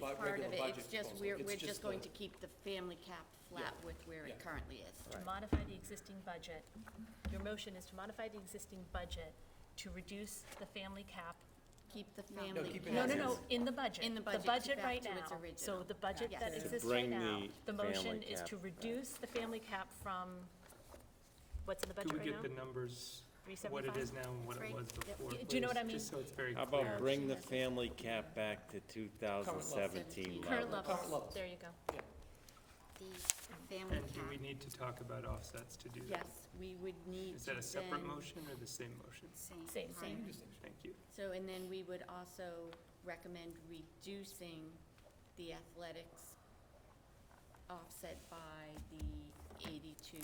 bu- part of regular it, budget it's just, proposal. we're, It's we're just just going the- to keep the family cap flat with where Yeah. it currently is. to modify the existing budget. Your motion is to modify the existing budget to reduce the family cap. Keep the No, family. keep it No, cap- no, as no, is. in the budget. In the budget, The keep budget back right to now. its So original. the budget Yes. that To exists right bring now, the the motion family is cap to back. reduce the family cap from, what's in the budget Do we right now? get the numbers, what it 375? is now and what That's it right. was Yep. before? Do you know what I please, Just mean? so it's very How clear. about bring the Yeah. family cap back to two thousand seventeen Current level? levels, Current levels. there you go. The family And do we cap, need to talk about offsets to do that? yes, we would need Is that to a separate then- motion or the same motion? Same, Same. same. Thank you. So, and then we would also recommend reducing the athletics offset by the eighty-two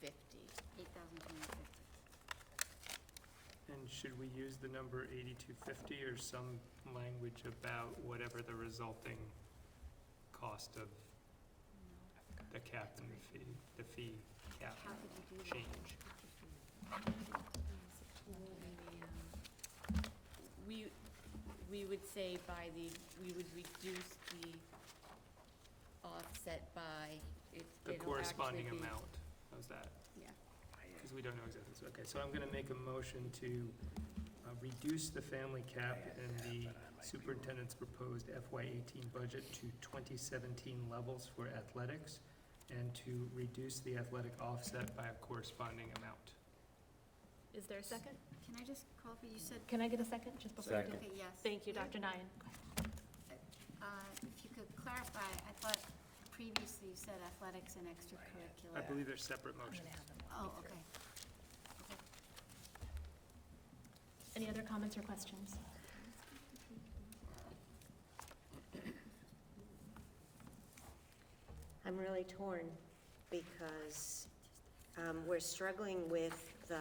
fifty. Eight thousand two hundred fifty. And should we use the number eighty-two fifty or some language about whatever the resulting cost of the cap and the fee, the fee cap How could you do that? change? We, we would say by the, we would reduce the offset by, it, The it'll actually corresponding be- amount, how's that? Yeah. Because we don't know exactly, so, okay, so I'm gonna make a motion to uh, reduce the family cap in the superintendent's proposed FY eighteen budget to twenty seventeen levels for athletics, and to reduce the athletic offset by a corresponding amount. Is there a second? Can I just call for, you said, Can I get a second, just before? you do? Second. okay, yes. Thank you, Dr. Nyan. Uh, If you could clarify, I thought previously you said athletics and I extracurricular. believe they're separate I'm gonna motions. have them walk me Oh, through. okay. Any other comments or questions? I'm really torn because um, we're struggling with the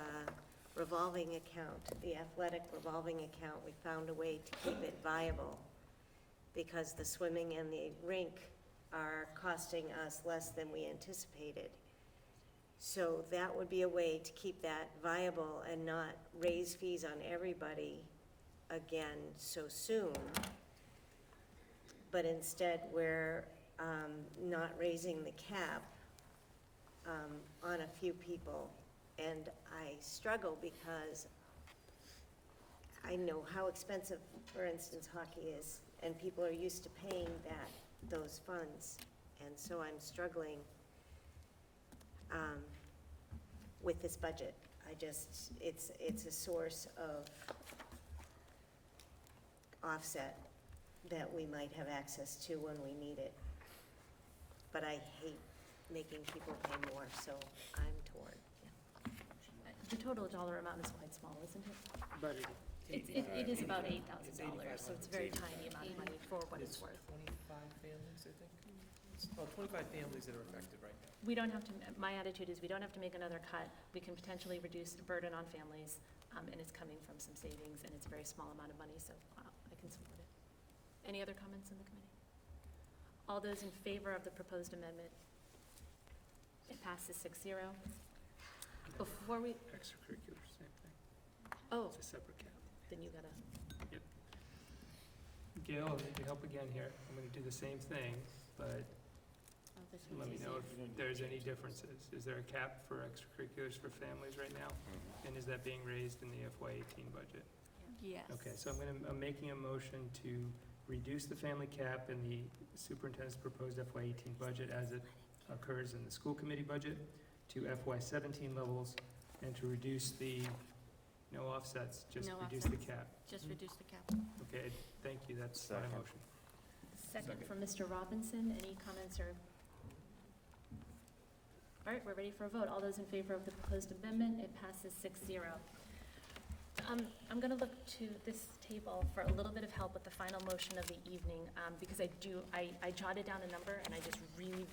revolving account, the athletic revolving account. We found a way to keep it viable because the swimming and the rink are costing us less than we anticipated. So that would be a way to keep that viable and not raise fees on everybody again so soon. But instead, we're um, not raising the cap um, on a few people. And I struggle because I know how expensive, for instance, hockey is, and people are used to paying that, those funds. And so I'm struggling um, with this budget. I just, it's, it's a source of offset that we might have access to when we need it. But I hate making people pay more, so I'm torn. The total dollar amount is quite small, isn't it? But it It's- It, it is about eight thousand $85,000. dollars, so it's a very tiny amount of money for what it's worth. twenty-five families, I think. It's about twenty-five families that are affected right now. We don't have to, my attitude is we don't have to make another cut. We can potentially reduce the burden on families, um, and it's coming from some savings, and it's a very small amount of money, so uh, I can support it. Any other comments in the committee? All those in favor of the proposed amendment? It passes six zero. Before we, Extracurricular, same thing, oh, it's a separate cap. then you gotta, oh, Gail, I need your help again here, I'm gonna do the same thing, but Oh, this Let one's me easy. know if there's any differences. Is there a cap for extracurriculars for families right now? And is that being raised in the FY eighteen budget? Yes. Okay, so I'm gonna, I'm making a motion to reduce the family cap in the superintendent's proposed FY eighteen budget as it occurs in the school committee budget to FY seventeen levels, and to reduce the, no offsets, just No reduce the offsets. cap. Just Mhm. reduce the cap. Okay, thank you, that's my Second. motion. second from Mr. Robinson. Any comments or? All right, we're ready for a vote. All those in favor of the proposed amendment, it passes six zero. Um, I'm gonna look to this table for a little bit of help with the final motion of the evening, um, because I do, I, I jotted down a number and I just really,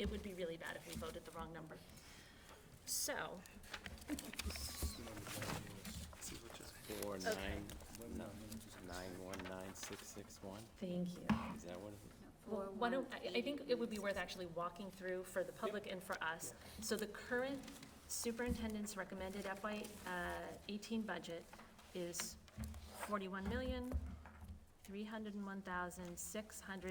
it would be really bad if we voted the wrong number. So, Four nine, no, nine one nine six six one, thank you. is that what it Well, why don't, I, I think it would be worth actually walking through for the public and for us. So the current superintendent's recommended FY uh, eighteen budget is forty-one million, three hundred and one thousand, six hundred